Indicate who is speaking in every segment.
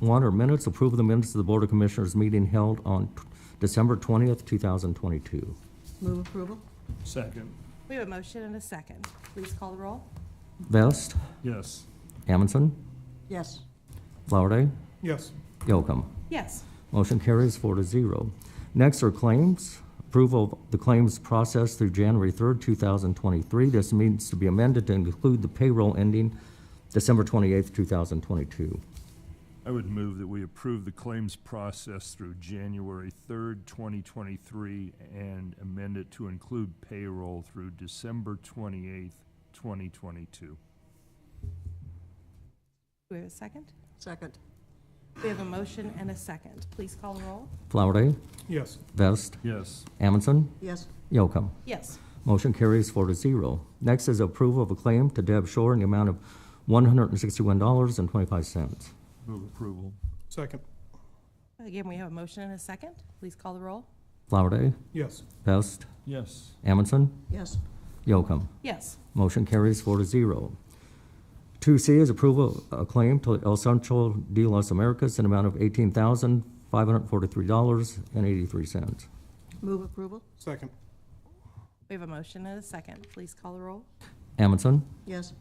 Speaker 1: one are minutes, approve the minutes of the Board of Commissioners meeting held on t- December 20th, 2022.
Speaker 2: Move approval.
Speaker 3: Second,
Speaker 2: We have a motion and a second. Please call the roll.
Speaker 1: Vest,
Speaker 3: yes.
Speaker 1: Amundson,
Speaker 2: Yes.
Speaker 1: Flowerday,
Speaker 3: Yes.
Speaker 1: Yocum.
Speaker 2: Yes.
Speaker 1: Motion carries four to zero. Next are claims. Approval of the claims process through January 3rd, 2023. This needs to be amended to include the payroll ending December 28th, 2022.
Speaker 3: I would move that we approve the claims process through January 3rd, 2023, and amend it to include payroll through December 28th,
Speaker 2: Do
Speaker 3: 2022.
Speaker 2: we have a second?
Speaker 4: Second.
Speaker 2: We have a motion and a second. Please call the roll.
Speaker 1: Flowerday,
Speaker 3: Yes.
Speaker 1: Vest,
Speaker 3: Yes.
Speaker 1: Amundson,
Speaker 4: Yes,
Speaker 1: Yocum.
Speaker 2: Yes.
Speaker 1: Motion carries four to zero. Next is approval of a claim to Deb Shore in the amount of $161.25.
Speaker 3: Move approval.
Speaker 5: Second,
Speaker 2: Again, we have a motion and a second. Please call the roll.
Speaker 1: Flowerday,
Speaker 5: yes.
Speaker 1: Vest,
Speaker 3: Yes.
Speaker 1: Amundson,
Speaker 4: yes,
Speaker 1: Yocum.
Speaker 2: Yes.
Speaker 1: Motion carries four to zero. Two C is approval of a claim to El Centro de Las Americas in amount of eighteen thousand, five hundred forty-three dollars and eighty-three cents.
Speaker 4: move approval,
Speaker 5: Second,
Speaker 2: We have a motion and a second. Please call the roll.
Speaker 1: Amundson,
Speaker 4: yes,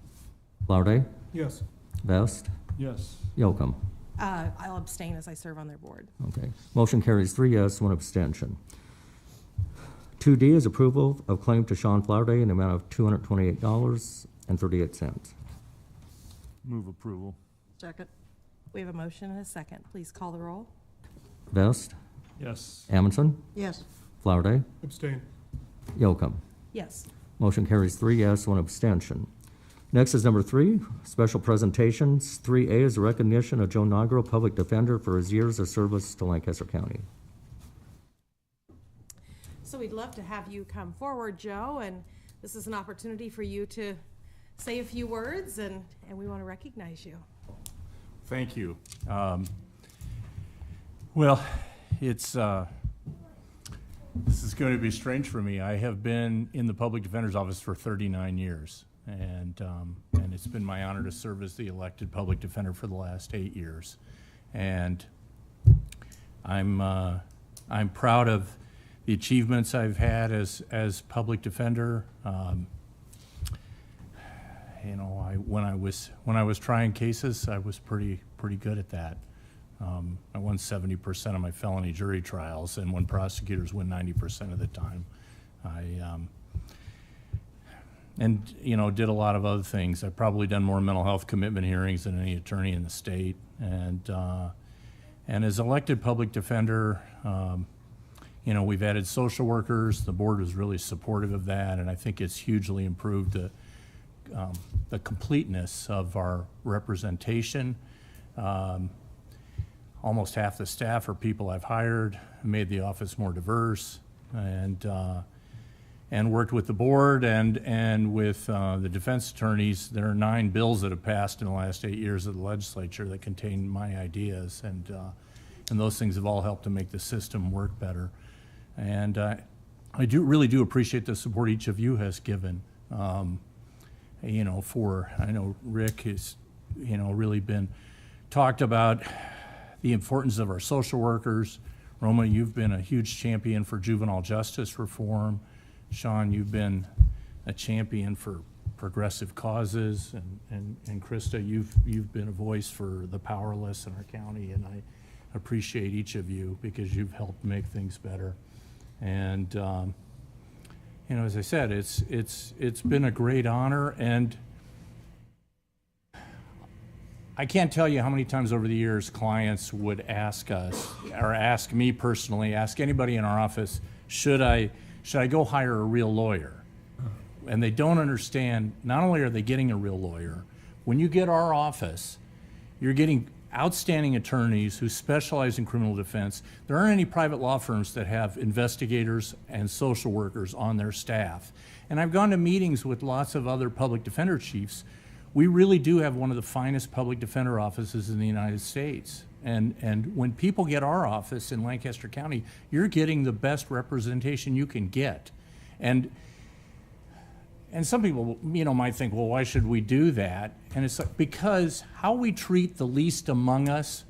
Speaker 1: Flowerday,
Speaker 5: yes.
Speaker 1: Vest,
Speaker 3: Yes.
Speaker 1: Yocum.
Speaker 2: Uh, I'll abstain as I serve on their board.
Speaker 1: Okay. Motion carries three yes, one abstention. Two D is approval of claim to Sean Flowerday in the amount of two hundred twenty-eight dollars and thirty-eight cents.
Speaker 3: Move approval.
Speaker 4: second,
Speaker 2: We have a motion and a second. Please call the roll.
Speaker 1: Vest,
Speaker 3: Yes.
Speaker 1: Amundson,
Speaker 4: yes,
Speaker 1: Flowerday,
Speaker 5: Abstain,
Speaker 1: Yocum.
Speaker 2: Yes.
Speaker 1: Motion carries three yes, one abstention. Next is number three, special presentations. Three A is a recognition of Joe Nigro, public defender, for his years of service to Lancaster County.
Speaker 6: So we'd love to have you come forward, Joe, and this is an opportunity for you to say a few words, and, and we want to recognize you.
Speaker 7: Thank you. Um, Well, it's, uh, this is going to be strange for me. I have been in the Public Defender's Office for 39 years, and, um, and it's been my honor to serve as the elected Public Defender for the last eight years. And I'm, uh, I'm proud of the achievements I've had as, as Public Defender. Um, you know, I, when I was, when I was trying cases, I was pretty, pretty good at that. Um, I won seventy percent of my felony jury trials, and when prosecutors win ninety percent of the time, I, um, and, you know, did a lot of other things. I've probably done more mental health commitment hearings than any attorney in the state, and, uh, and as elected public defender, um, you know, we've added social workers, the board was really supportive of that, and I think it's hugely improved the, um, the completeness of our representation. Um, Almost half the staff are people I've hired, made the office more diverse, and, uh, and worked with the board and, and with uh, the defense attorneys. There are nine bills that have passed in the last eight years of the legislature that contain my ideas, and, uh, and those things have all helped to make the system work better. And uh, I do, really do appreciate the support each of you has given. Um, you know, for, I know Rick has, you know, really been, talked about the importance of our social workers. Roma, you've been a huge champion for juvenile justice reform. Sean, you've been a champion for progressive causes. And, and, and Krista, you've, you've been a voice for the powerless in our county. And I appreciate each of you because you've helped make things better. And, um, you know, as I said, it's, it's, it's been a great honor and I can't tell you how many times over the years clients would ask us, or ask me personally, ask anybody in our office, should I, should I go hire a real lawyer? And they don't understand, not only are they getting a real lawyer, when you get our office, you're getting outstanding attorneys who specialize in criminal defense. There aren't any private law firms that have investigators and social workers on their staff. And I've gone to meetings with lots of other public defender chiefs. We really do have one of the finest public defender offices in the United States. And, and when people get our office in Lancaster County, you're getting the best representation you can get. And and some people, you know, might think, well, why should we do that? And it's like, because how we treat the least among us